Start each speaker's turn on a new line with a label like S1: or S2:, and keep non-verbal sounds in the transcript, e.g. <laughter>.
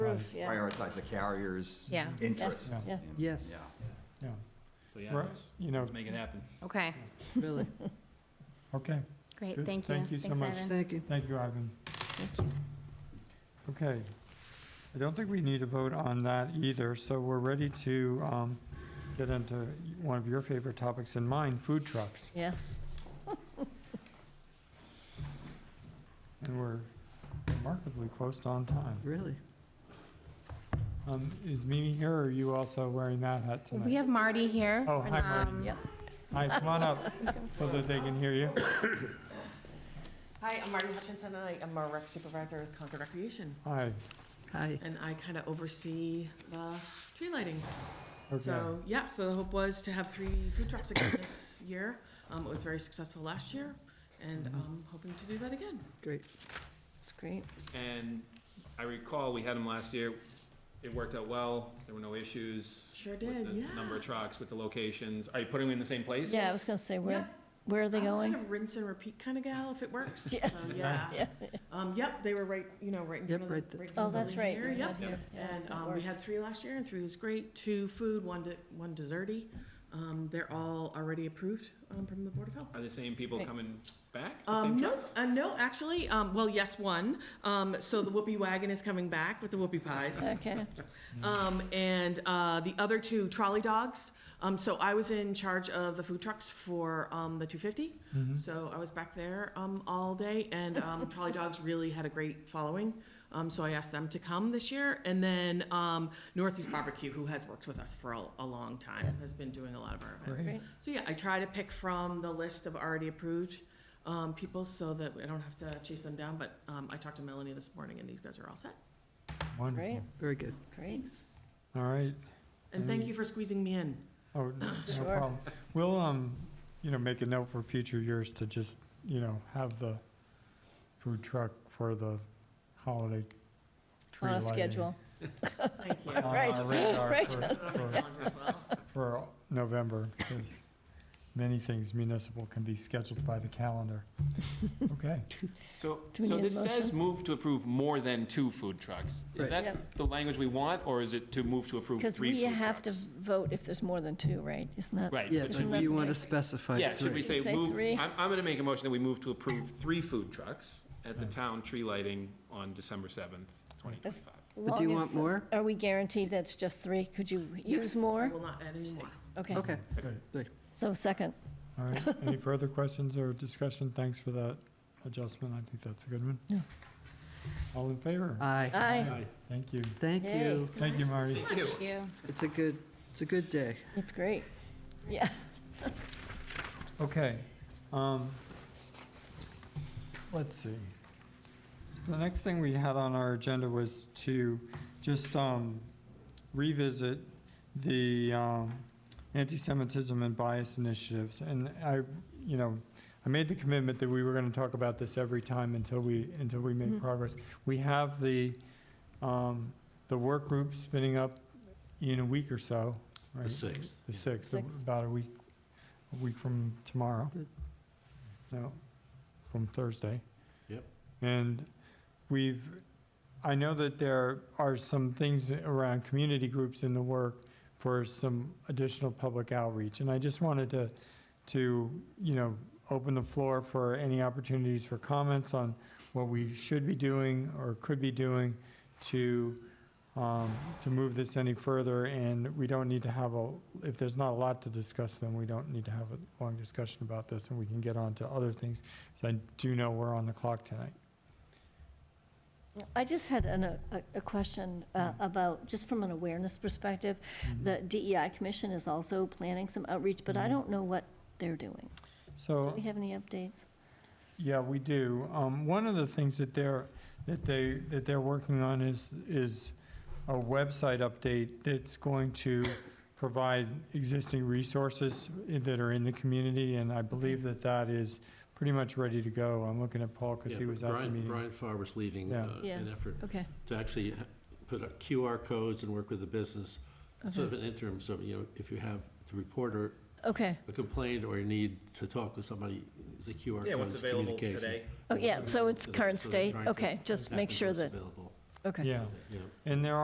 S1: of
S2: Yeah.
S1: prioritize the carrier's
S2: Yeah.
S1: interest.
S3: Yeah.
S2: Yeah.
S1: in-
S4: Yes.
S1: Yeah.
S3: Yeah,
S5: So yeah,
S3: Right,
S5: let's,
S3: you know,
S5: let's make it happen.
S2: Okay,
S4: Really,
S3: okay,
S2: great,
S3: Good,
S2: thank you.
S3: thank you so
S2: Thanks,
S3: much.
S2: Ivan.
S4: thank you.
S3: thank you, Ivan.
S2: Thank you.
S3: Okay. I don't think we need a vote on that either, so we're ready to um, get into one of your favorite topics and mine, food trucks.
S2: Yes.
S3: And we're remarkably close on time.
S4: Really?
S3: Um, Is Mimi here, or are you also wearing that hat tonight?
S2: We have Marty here.
S3: Oh, hi, Marty.
S2: Um,
S4: Yep.
S3: Hi, come on up, so that they can hear you.
S6: Hi, I'm Marty Hutchinson, and I am a rec supervisor with Concord Recreation,
S3: Hi,
S4: Hi.
S6: and I kind of oversee the tree lighting.
S3: okay.
S6: So, yeah, so the hope was to have three food trucks again this year. Um, It was very successful last year, and I'm hoping to do that again.
S4: Great.
S2: It's great.
S5: And I recall, we had them last year, it worked out well, there were no issues.
S6: Sure
S5: with
S6: did,
S5: the
S6: yeah.
S5: Number of trucks, with the locations, are you putting them in the same place?
S2: Yeah, I was gonna say, where,
S6: Yep.
S2: where are they
S6: I'm
S2: going?
S6: kind of rinse and repeat kind of gal, if it works, so,
S2: <laughs> Yeah.
S6: yeah.
S2: Yeah.
S6: Um, Yep, they were right, you know, right in
S4: Yep,
S6: front of the.
S4: right th-
S6: in
S2: Oh,
S6: the
S2: that's right.
S6: building here,
S2: you're
S6: Yep,
S2: not here. Yeah,
S6: And
S2: that
S6: um, we
S2: worked.
S6: had three last year, and three was great, two food, one de- one desserty. Um, They're all already approved um, from the Board of Health.
S5: Are the same people
S2: Right.
S5: coming back, the
S6: Um,
S5: same
S6: no,
S5: trucks?
S6: uh, no, actually, um, well, yes, one. Um, so the whoopie wagon is coming back with the whoopie pies.
S2: Okay,
S6: Um, and, uh, the other two trolley dogs. Um, so I was in charge of the food trucks for, um, the two fifty.
S2: Mm-hmm.
S6: So I was back there, um, all day and,
S2: <laughs>
S6: um, trolley dogs really had a great following. Um, so I asked them to come this year. And then, um, Northeast Barbecue, who has worked with us for a, a long time, has been doing a lot of our events.
S3: Great.
S2: Great.
S6: So yeah, I try to pick from the list of already approved, um, people so that I don't have to chase them down. But, um, I talked to Melanie this morning and these guys are all set.
S3: Wonderful.
S2: great,
S4: Very good.
S2: great.
S3: All right.
S6: And
S2: Mm.
S6: thank you for squeezing me
S2: <laughs>
S6: in.
S3: Oh, no- no
S2: Sure.
S3: problem. We'll, um, you know, make a note for future years to just, you know, have the food truck for the holiday tree
S2: On a
S3: lighting.
S2: schedule.
S6: Thank you.
S3: on our
S2: <laughs> Right,
S3: radar
S2: right.
S3: for- for- For November, because many things municipal can be scheduled by the
S2: <laughs>
S3: calendar. Okay,
S5: So,
S2: Do we
S5: so
S2: need a
S5: this says
S2: motion?
S5: move to approve more than two food trucks. Is
S4: Right.
S5: that
S2: Yep.
S5: the language we want, or is it to move to approve
S2: Because
S5: three
S2: we
S5: food
S2: have to
S5: trucks?
S2: vote if there's more than two, right? Isn't that?
S5: Right,
S4: Yeah,
S5: but
S2: should
S4: do
S5: should
S2: we-
S4: you want to
S2: That's
S4: specify
S5: Yeah, should we
S4: three?
S5: say
S2: Say
S5: move,
S2: three?
S5: I'm, I'm gonna make a motion that we move to approve three food trucks at the town tree lighting on December seventh, twenty
S2: That's-
S5: twenty-five.
S4: But Do you
S2: Long
S4: want
S2: as-
S4: more?
S2: Are we guaranteed that's just three? Could you use
S6: I
S2: more?
S6: will not add any more.
S2: Okay,
S4: Okay,
S3: great.
S2: so second,
S3: All right, any further questions or discussion? Thanks for that adjustment. I think that's a good one.
S2: Yeah.
S3: All in favor?
S4: aye.
S2: aye.
S3: Thank you.
S4: Thank
S2: Yay.
S4: you.
S3: Thank you, Marty.
S5: Thank you.
S4: It's a good, it's a good day.
S2: It's great. Yeah,
S3: Okay, um, let's see. The next thing we had on our agenda was to just, um, revisit the, um, anti-Semitism and bias initiatives. And I, you know, I made the commitment that we were gonna talk about this every time until we, until we make
S2: Mhm.
S3: progress. We have the, um, the work group spinning up in a week or so, right?
S7: sixth.
S3: The sixth,
S2: Sixth.
S3: about a week, a week from tomorrow.
S4: Good.
S3: No, from Thursday.
S7: Yep.
S3: And we've, I know that there are some things around community groups in the work for some additional public outreach. And I just wanted to, to, you know, open the floor for any opportunities for comments on what we should be doing or could be doing to, um, to move this any further, and we don't need to have a, if there's not a lot to discuss, then we don't need to have a long discussion about this, and we can get on to other things. So I do know we're on the clock tonight.
S2: I just had an, a, a question uh, about, just from an awareness perspective, the DEI Commission is also planning some outreach, but I
S3: Mhm.
S2: don't know what they're doing. Do
S3: So,
S2: we have any updates?
S3: yeah, we do. Um, One of the things that they're, that they, that they're working on is, is a website update that's going to provide existing resources that are in the community, and I believe that that is pretty much ready to go. I'm looking at Paul, because
S7: Yeah,
S3: he
S7: but
S3: was at the
S7: Brian-
S3: meeting.
S7: Brian Farber's leading
S3: Yeah.
S7: uh,
S2: Yeah.
S7: an effort
S2: Okay,
S7: to actually ha- put up QR codes and work with the business, sort
S2: Uh-huh.
S7: of an interim, so, you know, if you have to report or
S2: okay.
S7: a complaint or a need to talk with somebody, there's a QR code.
S5: Yeah, what's
S7: it's
S5: available
S7: communication.
S5: today?
S2: Oh,
S7: What's
S2: yeah, so
S7: available
S2: it's
S7: today,
S2: current
S7: so they're
S2: state,
S7: trying to
S2: okay, just
S7: tap
S2: make
S7: into
S2: sure
S7: what's
S2: that,
S7: available,
S2: okay.
S3: Yeah.
S7: yeah.
S3: And there